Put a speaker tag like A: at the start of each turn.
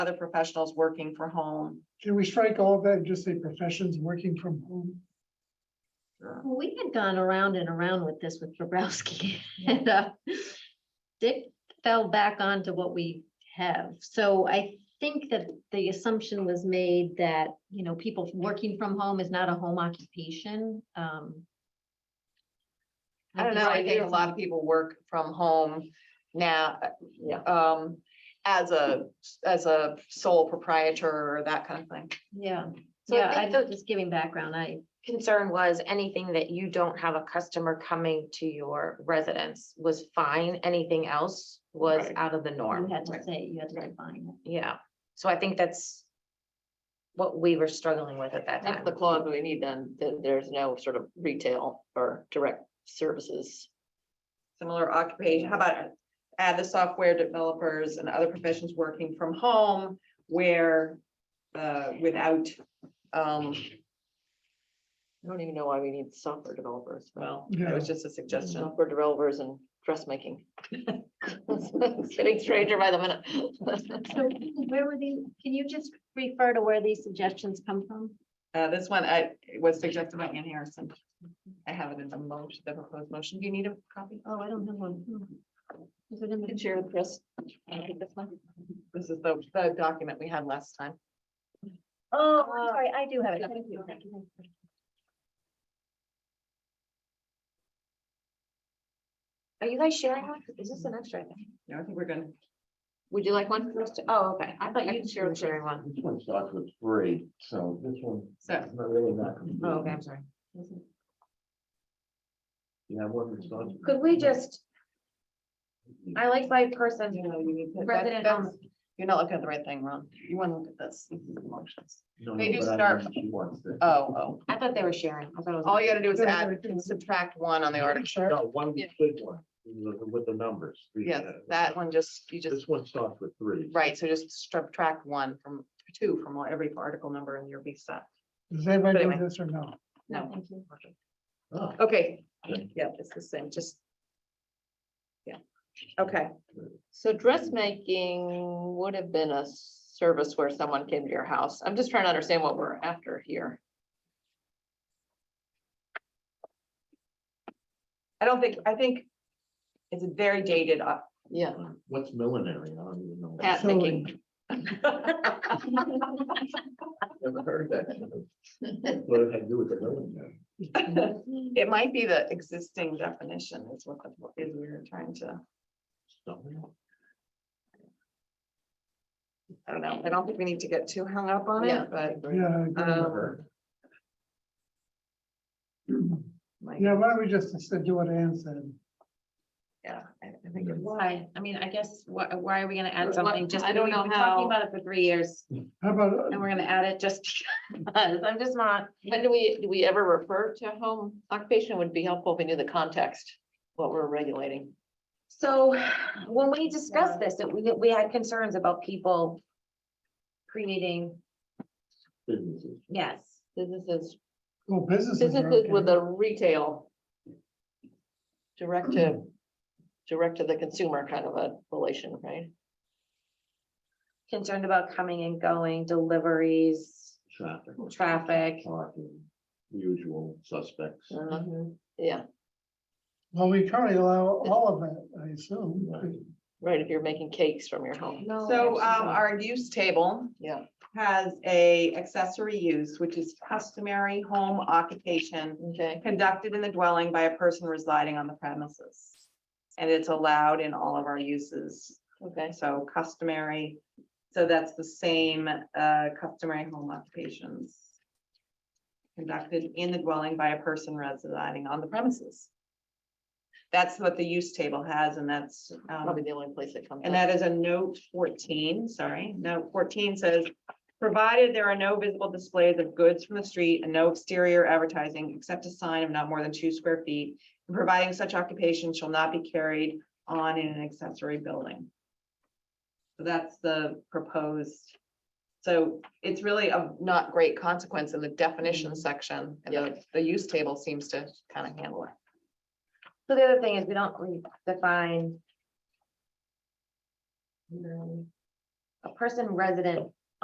A: other professionals working from home.
B: Can we strike all of that and just say professions working from home?
A: Sure.
C: Well, we had gone around and around with this with Bobrowski. and uh, Dick fell back onto what we have. So I think that the assumption was made that, you know, people working from home is not a home occupation. um,
A: I don't know, I think a lot of people work from home now,
C: Yeah.
A: um, as a, as a sole proprietor or that kind of thing.
C: Yeah,
D: So I
C: yeah,
D: think
C: I'm
D: the-
C: just giving background. I,
D: concern was anything that you don't have a customer coming to your residence was fine. Anything else was
A: Right.
D: out of the
C: you
D: norm.
C: had to
A: Right.
C: say, you had to define it.
D: Yeah, so I think that's what we were struggling with at that
E: That's
D: time.
E: the clause we need then, that there's no sort of retail or direct services.
A: Similar occupation, how about add the software developers and other professions working from home where, uh, without, um,
E: I don't even know why we need software developers,
A: well, that was just a suggestion.
E: software developers and dressmaking. It's Getting stranger by the minute.
C: So where were the, can you just refer to where these suggestions come from?
A: Uh, this one, I, was suggested by Ann Harrison. I have it in the motion, the proposed motion. Do you need a copy?
C: Oh, I don't have one. Hmm. Is it in the-
E: Share with Chris.
A: This is the, the document we had last time.
C: Oh,
A: Uh,
C: I'm sorry, I do have it.
A: yeah.
C: Thank you, thank you, thank you.
D: Are you guys sharing one? Is this an extra? I think?
A: No, I think we're gonna,
D: Would you like one first? Oh, okay. I thought
E: I
D: you
E: shared
D: were sharing one.
F: This one starts with three, so this one,
A: so,
F: that's not really not.
D: Oh, okay, I'm sorry.
F: Yeah, one that starts. with-
D: Could we just, I like five person.
A: you know, you need to. that-
D: Resident on-
A: that's- You're not looking at the right thing, Ron. You wanna look at this. This is the motions.
F: No, no,
A: Maybe
F: but I
A: start-
F: think She wants to.
A: Oh, oh,
D: I thought they were sharing. I thought it was.
A: all you gotta do is add, subtract one on the article.
F: No, one big one, with the- with the numbers. the,
A: Yes,
F: uh,
A: that one just, you just,
F: This one starts with three.
A: right, so just subtract one from, two from all- every article number in your B set.
B: Does anybody
A: Anyway.
B: know this or no?
A: No.
C: Thank you.
F: Oh,
A: Okay,
F: Okay.
A: yeah, it's the same, just. Yeah, okay,
E: So dressmaking would have been a service where someone came to your house. I'm just trying to understand what we're after here.
A: I don't think, I think it's very dated. uh,
E: Yeah.
F: What's millinery? I don't even know.
E: Hat picking.
F: Never heard that. What did I do with the millinery?
A: It might be the existing definition is what the, is we're trying to,
F: Something else.
A: I don't know, I don't think we need to get too hung up on
E: Yeah.
A: it, but.
B: Yeah, I agree.
A: um, like,
B: yeah, why don't we just instead do what Ann said?
A: Yeah, I I think it's.
D: Why? I mean, I guess, why, why are we gonna add
E: What-
D: something? Just,
E: I
D: I
E: don't
D: don't
E: know how-
D: Talking about it for three years
B: How about, uh,
D: and we're gonna add it just because. I'm just not.
E: When do we, do we ever refer to home occupation? Would be helpful if we knew the context, what we're regulating.
D: So when we discussed this, it- we, we had concerns about people creating,
F: Businesses.
D: yes.
E: Businesses,
B: well, businesses are
E: businesses
B: okay.
E: with a retail. Direct to, direct to the consumer kind of a relation, right?
D: Concerned about coming and going, deliveries,
F: Traffic.
D: traffic.
F: Parking, usual suspects.
E: uh, Yeah,
B: Well, we currently allow all of that, I assume.
F: Right.
E: right, if you're making cakes from your home.
D: No.
A: So um, our use table.
E: Yeah.
A: Has a accessory use, which is customary home occupation
E: Okay,
A: conducted in the dwelling by a person residing on the premises. And it's allowed in all of our uses,
E: okay.
A: so customary, so that's the same uh, customary home occupations. Conducted in the dwelling by a person residing on the premises. That's what the use table has, and that's. um,
E: Probably the only place that comes.
A: and
E: up.
A: that is a note fourteen, sorry, note fourteen says, provided there are no visible displays of goods from the street and no exterior advertising except a sign of not more than two square feet, and providing such occupation shall not be carried on in an accessory building. So that's the proposed. So it's really of not great consequence in the definition section, and the, the use table seems to kind of handle it.
D: So the other thing is we don't really define. um,
C: a person resident